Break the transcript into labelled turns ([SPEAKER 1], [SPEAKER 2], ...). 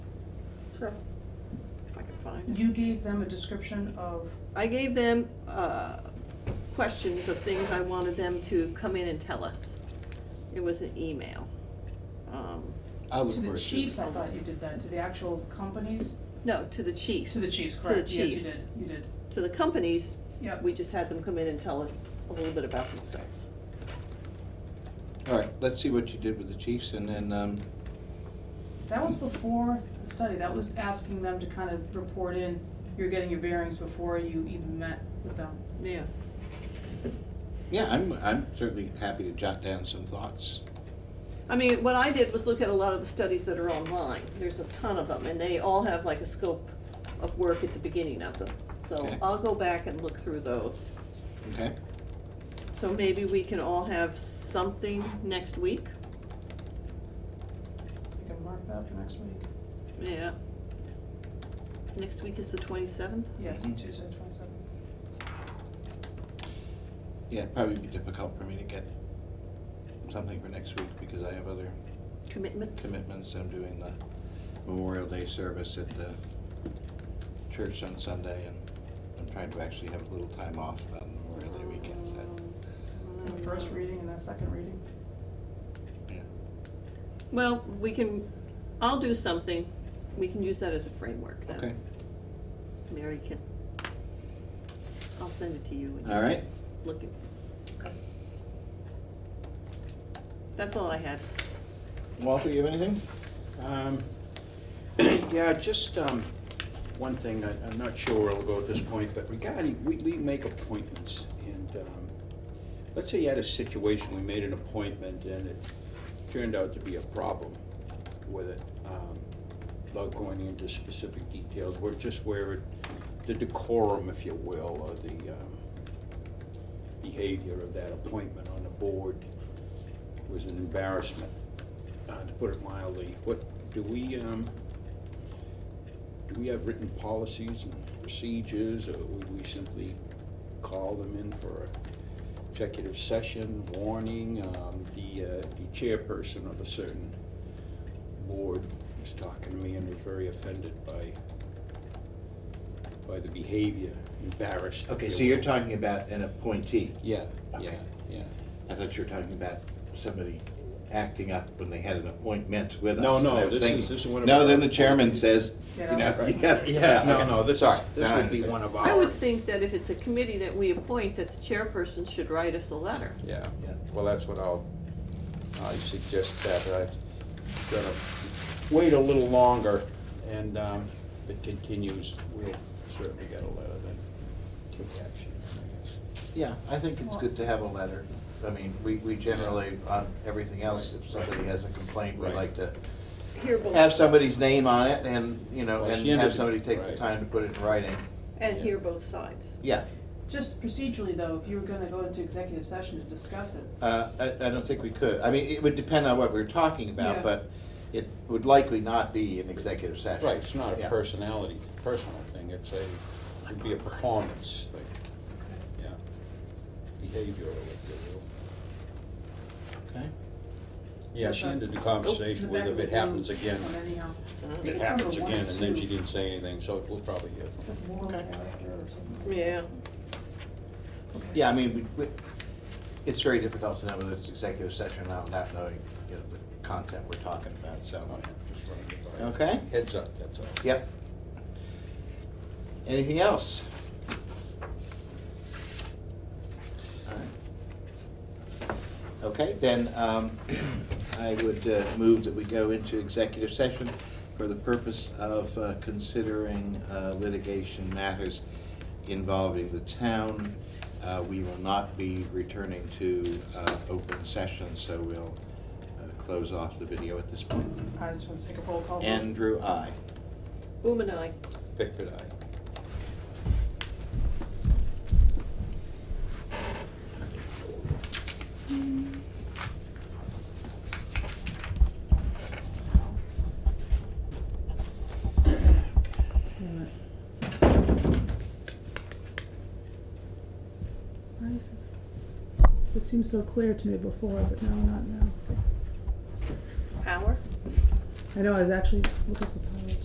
[SPEAKER 1] Sure. If I can find it.
[SPEAKER 2] You gave them a description of,
[SPEAKER 1] I gave them, uh, questions of things I wanted them to come in and tell us. It was an email. Um,
[SPEAKER 3] I was
[SPEAKER 2] to the
[SPEAKER 3] worried.
[SPEAKER 2] chiefs, I thought you did that, to the actual companies,
[SPEAKER 1] No, to the chiefs.
[SPEAKER 2] to the chiefs,
[SPEAKER 1] To the
[SPEAKER 2] correct? Yes, you
[SPEAKER 1] chiefs.
[SPEAKER 2] did, you did.
[SPEAKER 1] To the companies,
[SPEAKER 2] Yep.
[SPEAKER 1] we just had them come in and tell us a little bit about themselves.
[SPEAKER 3] All right, let's see what you did with the chiefs and then, um,
[SPEAKER 2] That was before the study, that was asking them to kind of report in, you're getting your bearings before you even met with them.
[SPEAKER 1] Yeah.
[SPEAKER 3] yeah, I'm, I'm certainly happy to jot down some thoughts.
[SPEAKER 1] I mean, what I did was look at a lot of the studies that are online. There's a ton of them, and they all have like a scope of work at the beginning of them. So
[SPEAKER 3] Okay.
[SPEAKER 1] I'll go back and look through those.
[SPEAKER 3] Okay,
[SPEAKER 1] So maybe we can all have something next week?
[SPEAKER 2] You can mark that for next week.
[SPEAKER 1] Yeah. Next week is the twenty-seventh?
[SPEAKER 2] Yes,
[SPEAKER 4] Mm-hmm.
[SPEAKER 3] Mhm.
[SPEAKER 2] Tuesday, twenty-seventh.
[SPEAKER 3] yeah, it'd probably be difficult for me to get something for next week because I have other
[SPEAKER 1] Commitment?
[SPEAKER 3] commitments. I'm doing the Memorial Day service at the church on Sunday and I'm trying to actually have a little time off on Memorial Day weekend, so,
[SPEAKER 2] The first reading and then second reading.
[SPEAKER 3] yeah.
[SPEAKER 1] Well, we can, I'll do something. We can use that as a framework then.
[SPEAKER 3] Okay,
[SPEAKER 1] Mary can, I'll send it to you. and you
[SPEAKER 3] all right,
[SPEAKER 1] can Look at. That's all I had.
[SPEAKER 3] Walter, you have anything?
[SPEAKER 4] Um, Yeah, just um, one thing, I- I'm not sure where it'll go at this point, but regarding, we, we make appointments, and um, let's say you had a situation, we made an appointment, and it turned out to be a problem with it, um, without going into specific details, we're just where it, the decorum, if you will, or the um, behavior of that appointment on the board was an embarrassment uh, to put it mildly, what, do we, um, do we have written policies and procedures, or would we simply call them in for a executive session, warning, um, the, uh, the chairperson of a certain board was talking to me and was very offended by, by the behavior, embarrassed.
[SPEAKER 3] Okay, so you're talking about an appointee.
[SPEAKER 4] Yeah, yeah,
[SPEAKER 3] Okay.
[SPEAKER 4] yeah.
[SPEAKER 3] I thought you were talking about somebody acting up when they had an appointment with us.
[SPEAKER 4] No,
[SPEAKER 3] and
[SPEAKER 4] no,
[SPEAKER 3] I was
[SPEAKER 4] this is-
[SPEAKER 3] thinking-
[SPEAKER 4] this is one of
[SPEAKER 3] No,
[SPEAKER 4] our-
[SPEAKER 3] then the chairman says, you
[SPEAKER 2] Get
[SPEAKER 3] know,
[SPEAKER 2] out.
[SPEAKER 3] you got.
[SPEAKER 4] Yeah, no, no, this is,
[SPEAKER 3] Sorry,
[SPEAKER 4] this
[SPEAKER 3] now I
[SPEAKER 4] would be
[SPEAKER 3] understand.
[SPEAKER 4] one of our.
[SPEAKER 1] I would think that if it's a committee that we appoint, that the chairperson should write us a letter.
[SPEAKER 4] Yeah,
[SPEAKER 3] Yeah.
[SPEAKER 4] well, that's what I'll, I suggest that, I've got to wait a little longer, and um, if it continues, we'll certainly get a letter then, take action, I guess.
[SPEAKER 3] Yeah, I think it's good to have a letter. I mean, we, we generally, on everything else, if somebody has a complaint, we
[SPEAKER 4] Right.
[SPEAKER 3] like to
[SPEAKER 1] Here, both-
[SPEAKER 3] have somebody's name on it and, you know,
[SPEAKER 4] Well,
[SPEAKER 3] and
[SPEAKER 4] she
[SPEAKER 3] have
[SPEAKER 4] ended-
[SPEAKER 3] somebody take the
[SPEAKER 4] right.
[SPEAKER 3] time to put it in writing.
[SPEAKER 1] and hear both sides.
[SPEAKER 3] Yeah,
[SPEAKER 2] Just procedurally though, if you were gonna go into executive session to discuss it,
[SPEAKER 3] uh, I, I don't think we could. I mean, it would depend on what we were talking
[SPEAKER 2] Yeah.
[SPEAKER 3] about, but it would likely not be an executive session.
[SPEAKER 4] Right, it's not a
[SPEAKER 3] Yeah.
[SPEAKER 4] personality, personal thing, it's a, it'd be a performance thing, yeah, behavioral, if you will.
[SPEAKER 3] Okay.
[SPEAKER 4] Yeah, she
[SPEAKER 1] Oh,
[SPEAKER 4] ended the conversation with if it happens again,
[SPEAKER 2] But anyhow.
[SPEAKER 4] if it happens again, and then she didn't say anything, so we'll probably hear from
[SPEAKER 2] It's
[SPEAKER 4] her.
[SPEAKER 2] like moral
[SPEAKER 3] Okay.
[SPEAKER 2] character or something.
[SPEAKER 1] Yeah.
[SPEAKER 2] Okay.
[SPEAKER 3] Yeah, I mean, we, we, it's very difficult to know whether it's executive session or not, without knowing, you know, the content we're talking about, so.
[SPEAKER 4] Oh, yeah, just wanted to provide a
[SPEAKER 3] Okay.
[SPEAKER 4] Heads up, that's all.
[SPEAKER 3] Yep. Anything else? All right. Okay, then, um, I would uh, move that we go into executive session for the purpose of uh, considering uh, litigation matters involving the town. Uh, we will not be returning to, uh, open session, so we'll, uh, close off the video at this point.
[SPEAKER 2] I just wanna take a roll call. vote.
[SPEAKER 3] Andrew, I.
[SPEAKER 1] Boom and I.
[SPEAKER 4] Pickford, aye.
[SPEAKER 5] Why is this- It seemed so clear to me before, but now not now.
[SPEAKER 1] Power?
[SPEAKER 5] I know, I was actually looking for